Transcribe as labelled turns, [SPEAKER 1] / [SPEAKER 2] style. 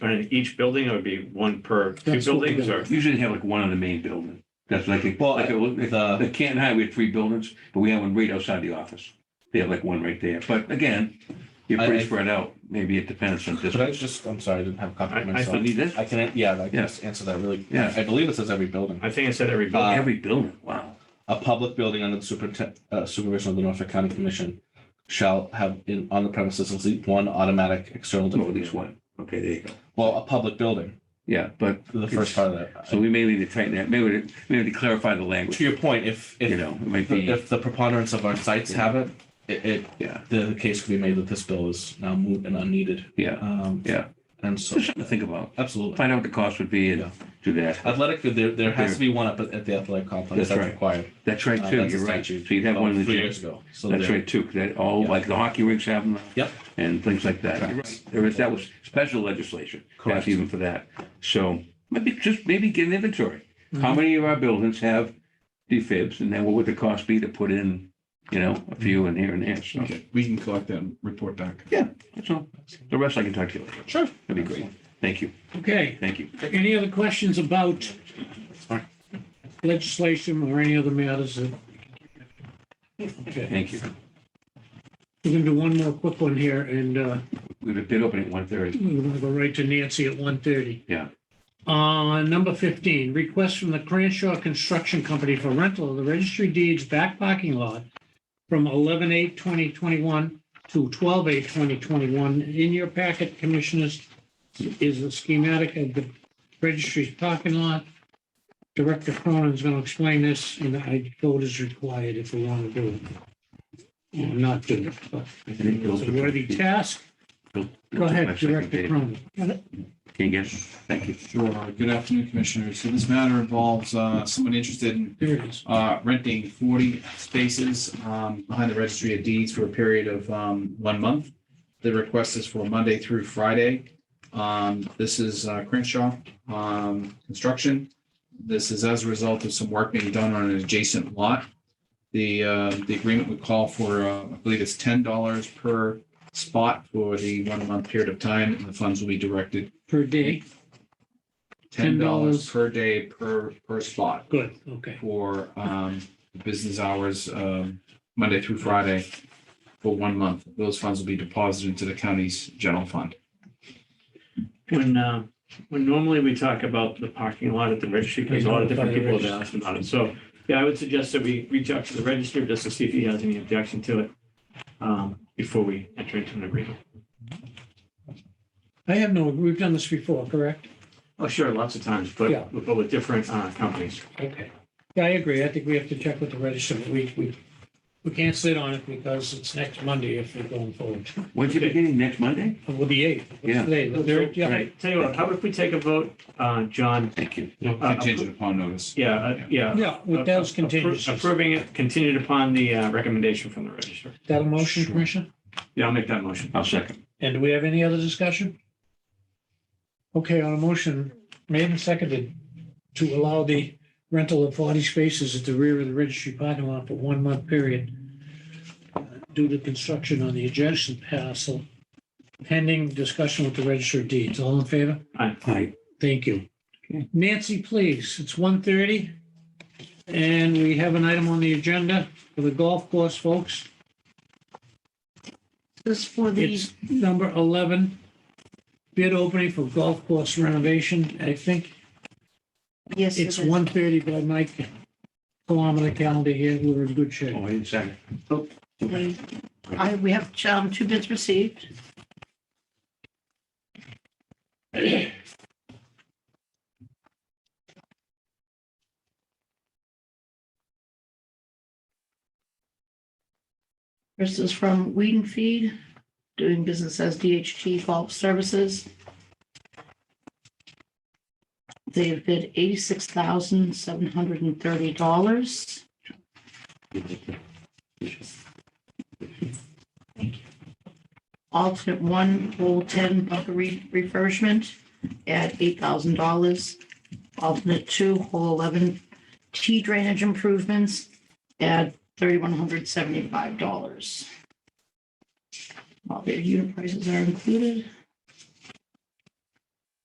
[SPEAKER 1] in each building, or would be one per two
[SPEAKER 2] That's what we
[SPEAKER 1] buildings,
[SPEAKER 2] got.
[SPEAKER 1] or?
[SPEAKER 3] Usually they have like one on the main building. That's like, if-
[SPEAKER 2] Well,
[SPEAKER 3] like, it was- if-
[SPEAKER 2] the-
[SPEAKER 3] the Canton High, we had three buildings, but we have one right outside the office. They have like one right there. But again, you're
[SPEAKER 2] I- I-
[SPEAKER 3] pretty spread out. Maybe it depends on
[SPEAKER 2] But I
[SPEAKER 3] distance.
[SPEAKER 2] was just, I'm sorry, I didn't have a copy
[SPEAKER 1] I-
[SPEAKER 2] of
[SPEAKER 1] I
[SPEAKER 2] myself.
[SPEAKER 3] But need this,
[SPEAKER 2] I can, yeah, I can
[SPEAKER 3] Yeah.
[SPEAKER 2] just answer that really.
[SPEAKER 3] Yeah.
[SPEAKER 2] I believe it says every building.
[SPEAKER 1] I think I said every building.
[SPEAKER 3] Oh,
[SPEAKER 2] uh,
[SPEAKER 3] every building, wow.
[SPEAKER 2] A public building under the superintendent, uh, supervision of the Norfolk County Commission shall have in, on the premises at least one automatic external.
[SPEAKER 3] Well, At
[SPEAKER 2] defecator.
[SPEAKER 3] least one. Okay, there you go.
[SPEAKER 2] Well, a public building,
[SPEAKER 3] Yeah, but
[SPEAKER 2] the first part of that.
[SPEAKER 3] so we may need to tighten that, maybe, to- maybe to clarify the
[SPEAKER 2] To
[SPEAKER 3] language,
[SPEAKER 2] your point, if,
[SPEAKER 3] you
[SPEAKER 2] if,
[SPEAKER 3] know, it might be,
[SPEAKER 2] if the preponderance of our sites have it, it, it,
[SPEAKER 3] yeah,
[SPEAKER 2] the case could be made that this bill is now moot and unneeded.
[SPEAKER 3] yeah.
[SPEAKER 2] Um,
[SPEAKER 3] Yeah.
[SPEAKER 2] And so,
[SPEAKER 3] Just something to think about.
[SPEAKER 2] absolutely.
[SPEAKER 3] Find out what the cost would be
[SPEAKER 2] Yeah. Uh,
[SPEAKER 3] and do that.
[SPEAKER 2] Athletic, there, there has to be one up at, at the athletic complex.
[SPEAKER 3] That's
[SPEAKER 2] That's
[SPEAKER 3] right.
[SPEAKER 2] required.
[SPEAKER 3] That's right
[SPEAKER 2] Uh,
[SPEAKER 3] too,
[SPEAKER 2] that's a
[SPEAKER 3] you're right. So
[SPEAKER 2] statute
[SPEAKER 3] you'd have one in
[SPEAKER 2] about
[SPEAKER 3] the
[SPEAKER 2] Three
[SPEAKER 3] gym.
[SPEAKER 2] years ago. So
[SPEAKER 3] That's
[SPEAKER 2] there-
[SPEAKER 3] right too, 'cause that all,
[SPEAKER 2] Yeah.
[SPEAKER 3] like the hockey rinks have them.
[SPEAKER 2] Yep.
[SPEAKER 3] And things like that. You're
[SPEAKER 2] Correct.
[SPEAKER 3] right. There is, that was special legislation. passed
[SPEAKER 2] Correct.
[SPEAKER 3] Even for that. So maybe just maybe get an inventory. How many of our buildings have defibs and then what would the cost be to put in, you know, a few in here and there? So
[SPEAKER 4] Okay, we can collect that and report back.
[SPEAKER 3] that's all. The rest I can talk to you later.
[SPEAKER 4] Sure.
[SPEAKER 3] That'd be great. Thank you.
[SPEAKER 5] Okay,
[SPEAKER 3] Thank you.
[SPEAKER 5] any other questions about legislation or any other matters? that- Okay,
[SPEAKER 3] Thank you.
[SPEAKER 5] we're gonna do one more quick one here and uh,
[SPEAKER 3] We have a bid opening at one thirty.
[SPEAKER 5] we're gonna go right to Nancy at 1:30.
[SPEAKER 3] Yeah.
[SPEAKER 5] Uh, number 15, request from the Crenshaw Construction Company for rental of the registry deeds back parking lot from 11/8/2021 to 12/8/2021. In your packet, Commissioners, is a schematic of the registry's parking lot. Director Cronin's going to explain this, and I vote is required if we want to do it. Or not do it, but I think it's a worthy task. Go ahead, Director Cronin.
[SPEAKER 3] Can you get it? Thank you.
[SPEAKER 4] Sure. Uh, Good afternoon, Commissioners. So this matter involves uh, someone interested in
[SPEAKER 5] There it is.
[SPEAKER 4] uh, renting 40 spaces um, behind the registry of deeds for a period of um, one month. The request is for Monday through Friday. Um, This is uh, Crenshaw um, Construction. This is as a result of some work being done on an adjacent lot. The, uh, the agreement would call for, uh, I believe it's $10 per spot for the one-month period of time, and the funds will be directed
[SPEAKER 5] Per day,
[SPEAKER 4] ten dollars
[SPEAKER 5] $10
[SPEAKER 4] per day per, per spot
[SPEAKER 5] good, okay.
[SPEAKER 4] for, um, business hours, um, Monday through Friday for one month. Those funds will be deposited into the county's general fund.
[SPEAKER 1] When, uh, when normally we talk about the parking lot at the registry, because a lot of different people have asked about it. So, yeah, I would suggest that we reach out to the register just to see if he has any objection to it um, before we enter into an agreement.
[SPEAKER 5] I have no, we've done this before, correct?
[SPEAKER 1] Oh, sure, lots of times,
[SPEAKER 5] Yeah.
[SPEAKER 1] but, but with different uh, companies.
[SPEAKER 5] Okay. Yeah, I agree. I think we have to check with the register. but We, we, we can't sit on it because it's next Monday if we're going forward.
[SPEAKER 3] When's it
[SPEAKER 1] Okay.
[SPEAKER 3] beginning? Next Monday?
[SPEAKER 5] Well, the eighth.
[SPEAKER 3] Yeah.
[SPEAKER 5] Today, the third,
[SPEAKER 1] All
[SPEAKER 5] yeah.
[SPEAKER 1] right, Tell you what, how about if we take a vote, uh, John?
[SPEAKER 3] Thank you.
[SPEAKER 1] uh,
[SPEAKER 4] Contingent upon notice.
[SPEAKER 1] Yeah, uh, yeah.
[SPEAKER 5] Yeah, with those contingencies.
[SPEAKER 1] Approving it contingent upon the uh, recommendation from the register.
[SPEAKER 5] That a motion,
[SPEAKER 3] Sure.
[SPEAKER 5] Commissioner?
[SPEAKER 1] Yeah, I'll make that motion.
[SPEAKER 3] I'll second.
[SPEAKER 5] And do we have any other discussion? Okay, on a motion made and seconded to allow the rental of forty spaces at the rear of the registry parking lot for one month period uh, due to construction on the adjacent parcel pending discussion with the register of deeds. All in favor?
[SPEAKER 3] Aye.
[SPEAKER 5] Thank you.
[SPEAKER 3] Okay.
[SPEAKER 5] Nancy, please. It's 1:30, And we have an item on the agenda for the golf course, folks.
[SPEAKER 6] This for the,
[SPEAKER 5] It's number 11, bid opening for golf course renovation. I think
[SPEAKER 6] yes,
[SPEAKER 5] it's
[SPEAKER 6] it's
[SPEAKER 5] 1:30 by my kilometer calendar here. We're in good shape.
[SPEAKER 3] Oh, I didn't second.
[SPEAKER 6] one. I, we have um, two bids received. This is from Weed and Feed, doing business as DHT Golf Services. They have bid eighty-six thousand, seven hundred and thirty dollars. alternate one, pole ten, bunker re- refurbishment at eight thousand dollars. Alternate two, hole eleven, T drainage improvements at thirty-one hundred seventy-five dollars. All their unit prices are included.